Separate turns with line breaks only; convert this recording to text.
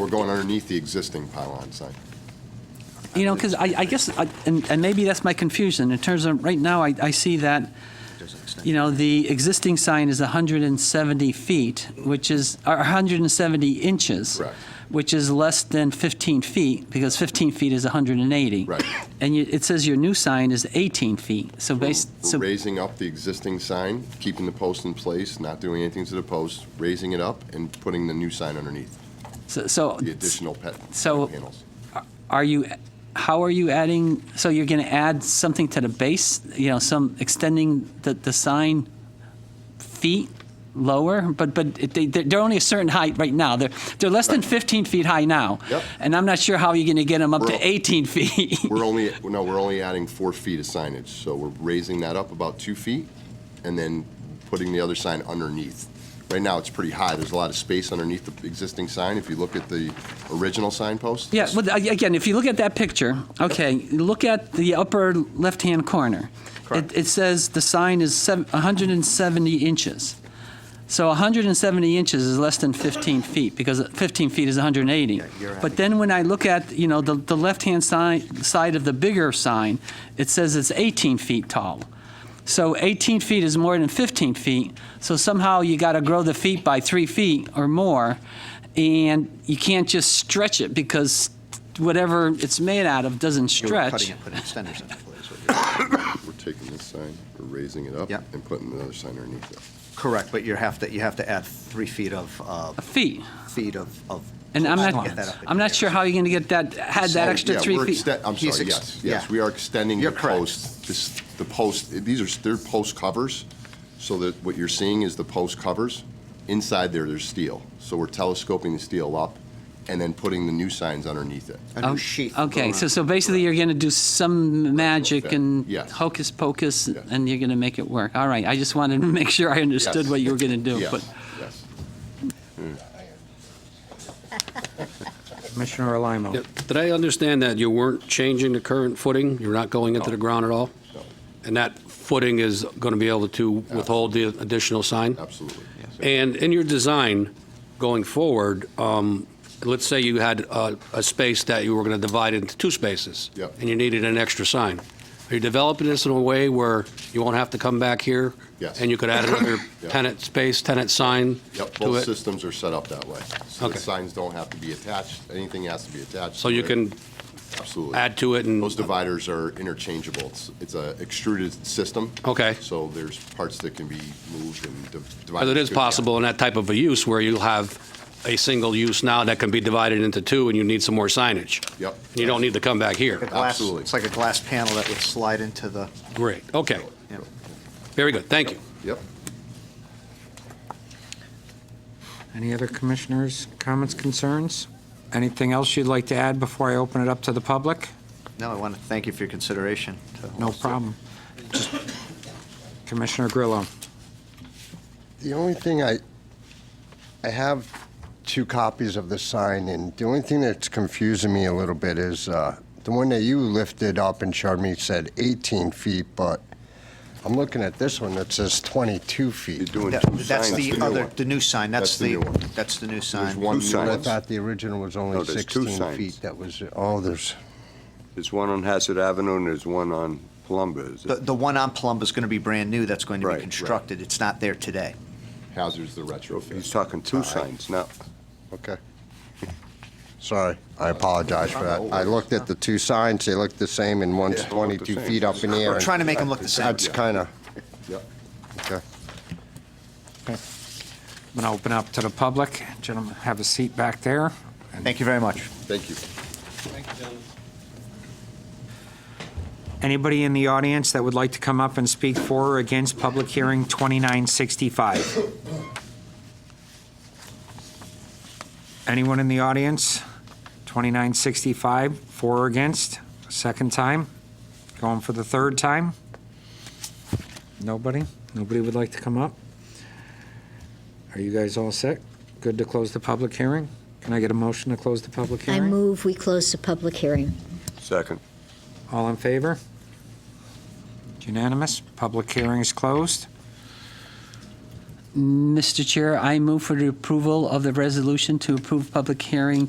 We're going underneath the existing pylon sign.
You know, because I, I guess, I- and, and maybe that's my confusion, in terms of, right now, I, I see that, you know, the existing sign is 170 feet, which is, or 170 inches.
Correct.
Which is less than 15 feet, because 15 feet is 180.
Right.
And you, it says your new sign is 18 feet, so
We're
based,
we're
so,
raising up the existing sign, keeping the post in place, not doing anything to the post, raising it up and putting the new sign underneath,
so- so,
the additional pet
So-
panels.
are you, how are you adding, so you're going to add something to the base, you know, some, extending the, the sign feet lower, but, but it- they, they're they're only a certain height right now. They're, they're less than 15 feet high now.
Yep.
And I'm not sure how you're going to get them up
We're-
to 18 feet.
We're only, no, we're only adding four feet of signage, so we're raising that up about two feet and then putting the other sign underneath. Right now, it's pretty high, there's a lot of space underneath the existing sign, if you look at the original signpost.
Yeah, well, ag- again, if you look at that picture, okay, look at the upper left-hand corner.
Correct.
It, it says the sign is sev- 170 inches. So 170 inches is less than 15 feet, because 15 feet is 180.
you're adding-
But then when I look at, you know, the, the left-hand side, side of the bigger sign, it says it's 18 feet tall. So 18 feet is more than 15 feet, so somehow you got to grow the feet by three feet or more, and you can't just stretch it because whatever it's made out of doesn't
You're
stretch.
Cutting it, putting extenders in place. what you're-
We're taking this sign, we're raising it up
Yep.
and putting the other sign underneath it.
Correct, but you have to, you have to add three feet of, uh,
A feet,
feet of, of.
and I'm
post to get that
not,
up in
I'm not
the
sure
air.
how you're going to get that, had that
Oh,
extra
yeah,
three
we're
feet.
exten- I'm
He's
sorry,
ex-
yes, yes,
yeah.
we are extending the
You're correct.
post, this, the post, these are, they're post covers, so that what you're seeing is the post covers. Inside there, there's steel, so we're telescoping the steel up and then putting the new signs underneath it.
A new sheath. will
Oh,
go
Okay, so,
around.
so basically you're going to do some magic
Okay.
and
Yes.
hocus pocus,
Yes.
and you're going to make it work. All right, I just wanted to make sure I understood
Yes.
what you were going to do.
Yes,
but-
yes.
Commissioner Alamo.
Yep. Did I understand that you weren't changing the current footing? You're not going into the ground at all?
No.
And that footing is going to be able to withhold the additional sign?
Absolutely.
And in your design going forward, um, let's say you had uh, a space that you were going to divide into two spaces.
Yep.
And you needed an extra sign. Are you developing this in a way where you won't have to come back here?
Yes.
And you could add another
Yep.
tenant space, tenant sign
Yep,
to
both
it?
systems are set up that way. So the
Okay.
signs don't have to be attached, anything has to be attached.
So you
to it.
can
Absolutely.
add to it and...
Those dividers are interchangeable. It's, it's a extruded system.
Okay.
So there's parts that can be moved and div- divided.
But it is possible in that type of a use where you'll have a single use now that can be divided into two and you need some more signage.
Yep.
And you don't need to come back here.
A glass-
absolutely.
It's like a glass panel that would slide into the,
Great, okay.
yeah.
Very good, thank you.
Yep.
Any other commissioners' comments, concerns? Anything else you'd like to add before I open it up to the public?
No, I want to thank you for your consideration. to-
No problem. Just- Commissioner Grillo.
The only thing I, I have two copies of the sign, and the only thing that's confusing me a little bit is uh, the one that you lifted up and showed me said 18 feet, but I'm looking at this one that says 22
You're
feet.
doing
That-
two
That's
signs.
the
new
other,
one.
the new sign,
That's
that's
the
the,
new one.
that's the new sign.
There's one new
I
one.
thought the original was only
No, there's two
16
signs.
feet. That was, oh, there's,
There's one on Hazard Avenue and there's one on Columbus.
The, the one on Palumbo's going to be brand new, that's going to
Right,
be
right.
constructed, it's not there today.
Hazard's the
He's
retrofit.
talking two signs now.
okay. Sorry, I apologize for that. I looked at the two signs, they look the same, and one's
Yeah, they look the
22
same.
feet up in the air.
We're
and
trying to make them look the same.
That's kind of,
Yep.
okay.
I'm going to open up to the public. Gentlemen, have a seat back there.
Thank you very much.
Thank you.
Anybody in the audience that would like to come up and speak for or against Public Hearing 2965? Anyone in the audience? 2965, for or against? Second time? Going for the third time? Nobody? Nobody would like to come up? Are you guys all set? Good to close the public hearing? Can I get a motion to close the public
I
hearing?
move we close the public hearing.
Second.
All in favor? It's Unanimous. Public hearing is closed.
Mr. Chair, I move for the approval of the resolution to approve public hearing